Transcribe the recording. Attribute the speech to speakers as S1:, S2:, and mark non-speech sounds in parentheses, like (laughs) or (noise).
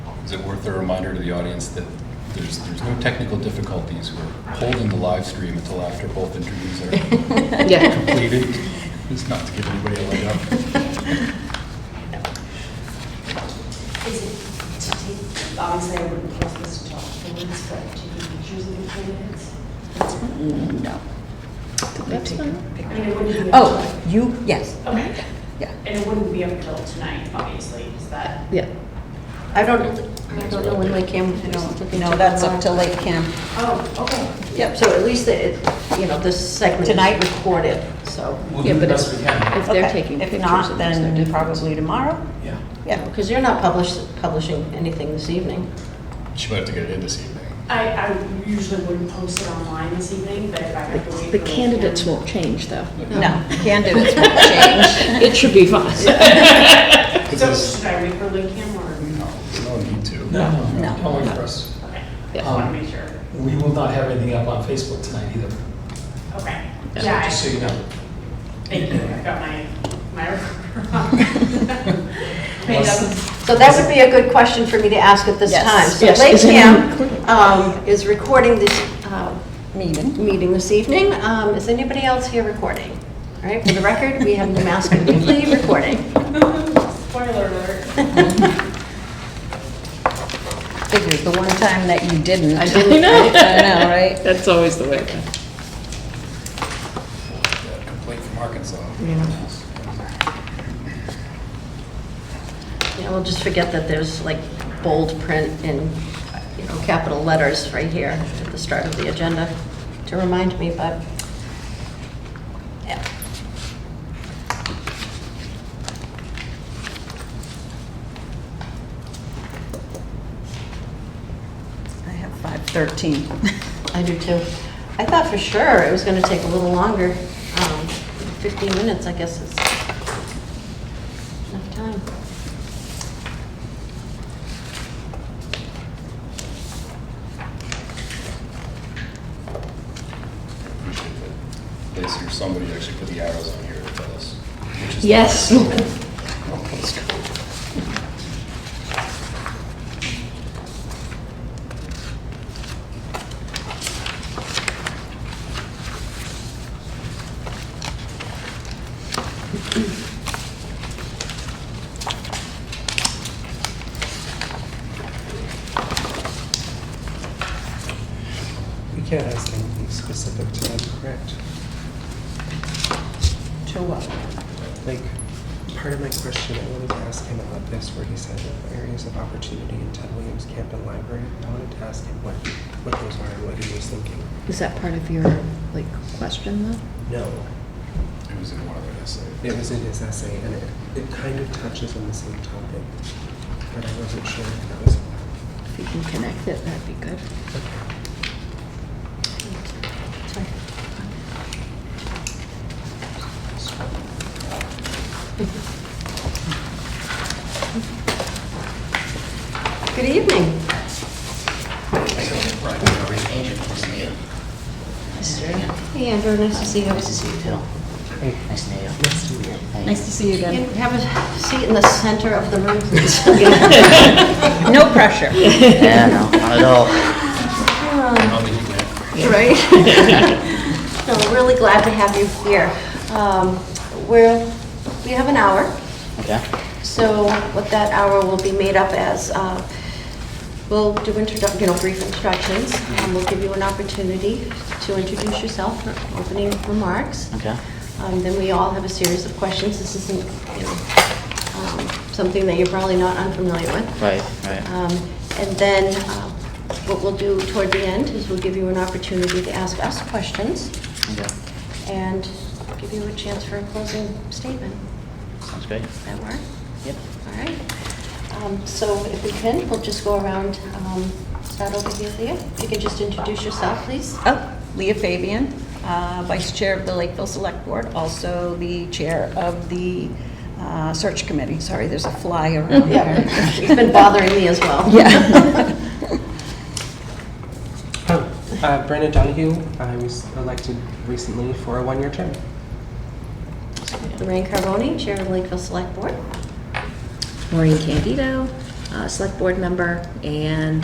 S1: Is it worth a reminder to the audience that there's, there's no technical difficulties? We're holding the live stream until after both interviews are
S2: Yeah.
S1: (laughs) completed, just not to give anybody a leg up.
S3: Is it to take, obviously I wouldn't force this to talk for minutes, but taking pictures of the candidates?
S4: No. Could we take a
S3: I
S4: picture?
S3: mean, it wouldn't be. up
S4: Oh, you, yes,
S3: till- Okay,
S4: yeah,
S3: and it wouldn't be up till tonight, obviously, is that?
S2: Yeah. I don't, I don't know when Lake Cam, I don't look into
S4: no, that's up
S2: that.
S4: to Lake Cam.
S3: Oh, okay.
S2: Yep, so at least it, you know, this segment
S4: Tonight?
S2: is recorded, so.
S5: We'll do the best we can.
S2: If they're
S4: Okay,
S2: taking
S4: If
S2: pictures
S4: not,
S2: of this, they're
S4: then
S2: different.
S4: probably tomorrow,
S5: Yeah.
S4: yeah.
S2: Because you're not publish publishing anything this evening.
S1: She might have to get it in this evening.
S3: I, I usually wouldn't post it online this evening, but if I have to wait.
S6: The
S3: for the
S6: candidates
S3: candidate-
S6: won't change, though.
S4: No, (laughs) candidates won't change.
S6: It should be (laughs) fine.
S1: Because
S3: So
S1: there's
S3: should I wait for Lake Cam or no?
S1: there's no need to.
S5: No,
S4: No.
S5: don't worry for us.
S3: Okay,
S6: Yeah.
S3: just want to make sure.
S5: We will not have anything up on Facebook tonight either.
S3: Okay.
S5: So
S3: Yeah, I-
S5: Just so you know.
S3: thank you, I've got my, my recorder on. (laughs) It doesn't-
S2: So that would be a good question for me to ask at this
S4: Yes.
S2: time. So
S6: Yes,
S2: Lake
S6: is it
S2: Cam um, is recording this uh,
S4: Meeting.
S2: meeting this evening. Um, Is anybody else here recording? All right, for the record, we have Namaska Newly recording.
S3: Spoiler alert.
S4: Figures, the one time that you didn't.
S6: I didn't know.
S4: (laughs)
S6: (laughs)
S4: I know, right?
S6: That's always the way.
S1: That Complaint from Arkansas.
S2: Yeah, we'll just forget that there's like bold print in, you know, capital letters right here at the start of the agenda to remind me, but, yeah.
S4: I have
S6: (laughs)
S4: 513.
S2: I do too. I thought for sure it was going to take a little longer. Um, 15 minutes, I guess, is enough time.
S1: Appreciate that. Liz or somebody actually put the arrows on here to tell us. which is-
S6: Yes.
S7: We can't ask anything specific to them, correct?
S4: To what?
S7: Like, part of my question, I wanted to ask him about this, where he said that areas of opportunity in Ted Williams Camp and Library. I wanted to ask him what, what those are and what he was thinking.
S6: Is that part of your, like, question, though?
S7: No.
S1: It was in one of their essays.
S7: It was in his essay, and it, it kind of touches on the same topic, but I wasn't sure if that was.
S6: If you can connect it, that'd be good.
S2: Sorry. Good evening. Hey, Andrew, nice to see you.
S8: Nice to see you too. Nice to meet you. Nice to meet you.
S4: Nice to see you
S2: Can you
S4: again.
S2: have a seat in the center of the room, please? (laughs)
S4: (laughs) No pressure.
S8: Yeah, no, (laughs) not at all.
S2: Um,
S4: (laughs)
S2: Right? No, we're really glad to have you here. Um, We're, we have an hour.
S8: Okay.
S2: So what that hour will be made up as, uh, we'll do introdu, you know, brief introductions,
S8: Mm-hmm.
S2: and we'll give you an opportunity to introduce yourself for opening remarks.
S8: Okay.
S2: Um, Then we all have a series of questions. This isn't, you know, um, something that you're probably not unfamiliar with.
S8: Right, right.
S2: Um, And then uh, what we'll do toward the end is we'll give you an opportunity to ask us questions
S8: Okay.
S2: and give you a chance for a closing statement.
S8: Sounds great.
S2: Does that work?
S8: Yep.
S2: All right. Um, So if we can, we'll just go around, um, start over here, Leah. If you could just introduce yourself, please.
S4: Oh, Leah Fabian, uh, Vice Chair of the Lakeville Select Board, also the Chair of the uh, Search Committee. Sorry, there's a fly around
S2: Yeah,
S4: here.
S2: It's been bothering
S4: (laughs)
S2: me as well. (laughs)
S4: Yeah.
S7: Oh, uh, Brandon Donahue, I was elected recently for a one-year term.
S2: Lorraine Carboni, Chair of Lakeville Select Board.
S6: Maureen Candido,
S2: uh, select board member, and